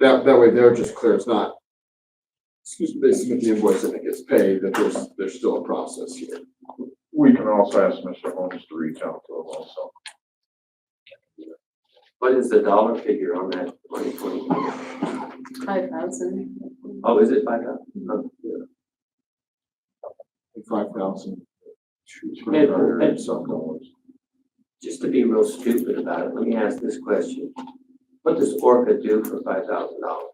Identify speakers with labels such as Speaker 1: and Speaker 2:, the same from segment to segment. Speaker 1: That, that way they're just clear, it's not, excuse me, they submit the invoice and it gets paid, that there's, there's still a process here.
Speaker 2: We can also ask Mr. Holmes to reach out to him also.
Speaker 3: What is the dollar figure on that twenty twenty?
Speaker 4: Five thousand.
Speaker 3: Oh, is it five thousand?
Speaker 1: Five thousand.
Speaker 3: Maybe, maybe.
Speaker 1: Some dollars.
Speaker 3: Just to be real stupid about it, let me ask this question. What does Orca do for five thousand dollars?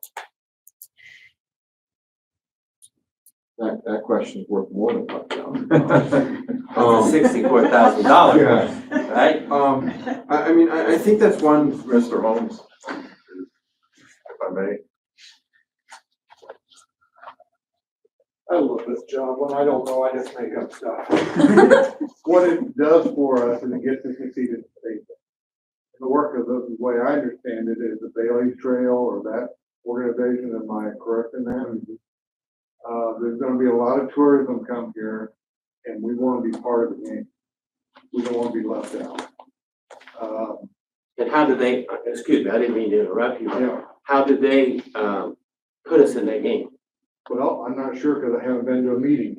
Speaker 1: That, that question's worth more than five thousand. Um,
Speaker 3: Sixty-four thousand dollars,
Speaker 1: yeah,
Speaker 3: right?
Speaker 1: um, I, I mean, I, I think that's one
Speaker 2: Mr. Holmes, if I may,
Speaker 5: I love this job. When I don't know, I just make up stuff. What it does for us is it gets us exceeded state. The work of this, the way I understand it, is the Bailey Trail or that organization, am I correct in that?
Speaker 2: Mm-hmm.
Speaker 5: Uh, there's gonna be a lot of tourism come here, and we wanna be part of the game. We don't wanna be left out. Um,
Speaker 3: And how do they, uh, excuse me, I didn't mean to interrupt you.
Speaker 5: yeah,
Speaker 3: How do they, um, put us in that game?
Speaker 5: Well, I'm not sure because I haven't been to a meeting.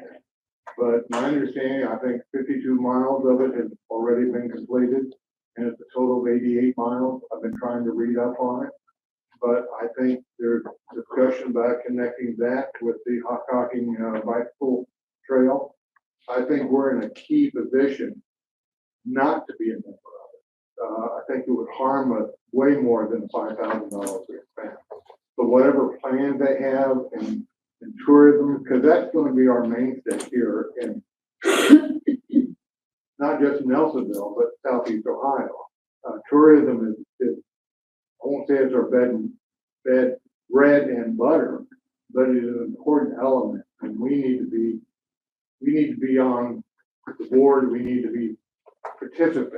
Speaker 5: But my understanding, I think fifty-two miles of it has already been completed. And it's a total of eighty-eight miles. I've been trying to read up on it. But I think there's discussion about connecting that with the Hockhocking uh, bicycle trail. I think we're in a key position not to be a member of it. Uh, I think it would harm us way more than five thousand dollars to expand. But whatever plan they have and and tourism, because that's gonna be our mainstay here in not just Nelsonville, but southeast Ohio. Uh, tourism is, is, I won't say it's our bed and, bed, bread and butter, but it is an important element, and we need to be, we need to be on the board, we need to be participants.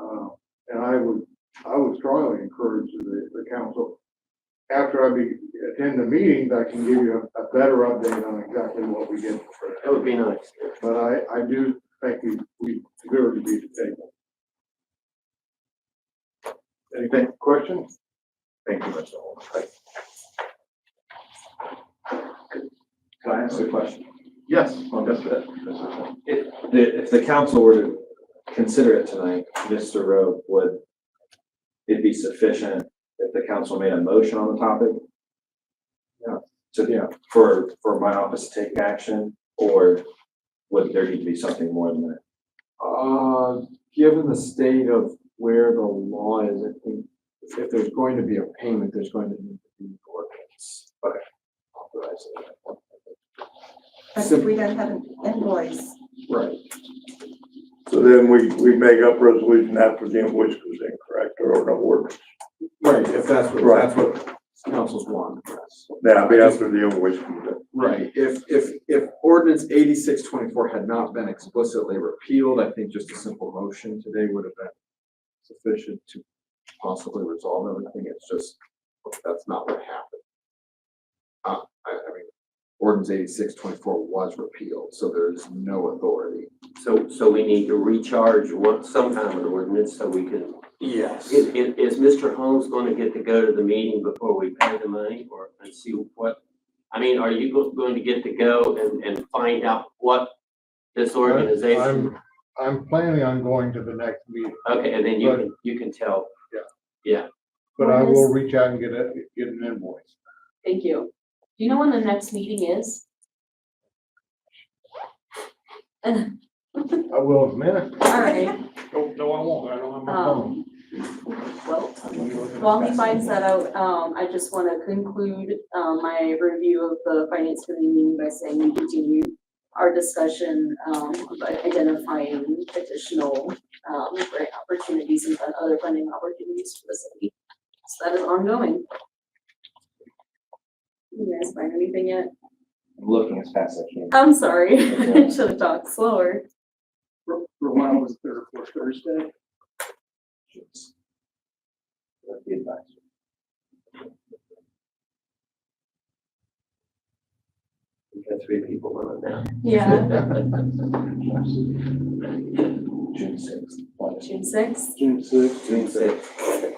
Speaker 5: Uh, and I would, I would strongly encourage the, the council after I be, attend the meetings, I can give you a, a better update on exactly what we get for
Speaker 3: That would be nice.
Speaker 5: that. But I, I do think we, we deserve to be at the table. Any que- questions?
Speaker 2: thank you, Mr. Holmes.
Speaker 6: Can I ask a question?
Speaker 2: Yes,
Speaker 6: on
Speaker 2: yes, sir.
Speaker 6: If the, if the council were to consider it tonight, Mr. Rowe, would it be sufficient if the council made a motion on the topic?
Speaker 1: Yeah.
Speaker 6: To,
Speaker 1: Yeah.
Speaker 6: for, for my office to take action, or would there need to be something more than that?
Speaker 1: Uh, given the state of where the law is, I think if there's going to be a payment, there's going to need to be an ordinance. But authorize it.
Speaker 7: But if we don't have an invoice,
Speaker 1: Right.
Speaker 8: So then we, we make up resolution after the invoice goes in, correct, or no word?
Speaker 1: Right, if that's what,
Speaker 8: Right.
Speaker 1: that's what councils want. yes.
Speaker 8: Yeah, but after the invoice comes in.
Speaker 1: Right, if, if, if ordinance eighty-six twenty-four had not been explicitly repealed, I think just a simple motion today would have been sufficient to possibly resolve everything. It's just, that's not what happened. Uh, I, I mean, ordinance eighty-six twenty-four was repealed, so there is no authority.
Speaker 3: So, so we need to recharge one, some kind of an ordinance so we can
Speaker 1: Yes.
Speaker 3: Is, is, is Mr. Holmes gonna get to go to the meeting before we pay the money or, and see what? I mean, are you go- going to get to go and, and find out what this organization?
Speaker 5: I'm, I'm planning on going to the next meeting,
Speaker 3: Okay, and then you can, you can tell.
Speaker 5: but I
Speaker 4: When
Speaker 5: will
Speaker 4: is-
Speaker 5: reach out and get a, get an invoice.
Speaker 4: Thank you. Do you know when the next meeting is?
Speaker 5: I will in a minute.
Speaker 4: All right,
Speaker 5: No, no, I won't. I don't have
Speaker 4: um, well, while he finds that out, um, I just want to conclude, um, my review of the finance committee meeting by saying we continue our discussion, um, about identifying additional, um, grant opportunities and fun- other funding opportunities for the city. So that is ongoing. You guys find anything yet?
Speaker 6: I'm looking as fast as I can.
Speaker 4: I'm sorry, I should have talked slower.
Speaker 5: Rowan was there for Thursday.
Speaker 6: That's the advice.
Speaker 3: We've got three people on it now.
Speaker 4: Yeah.
Speaker 6: June sixth.
Speaker 4: June sixth.
Speaker 3: June sixth.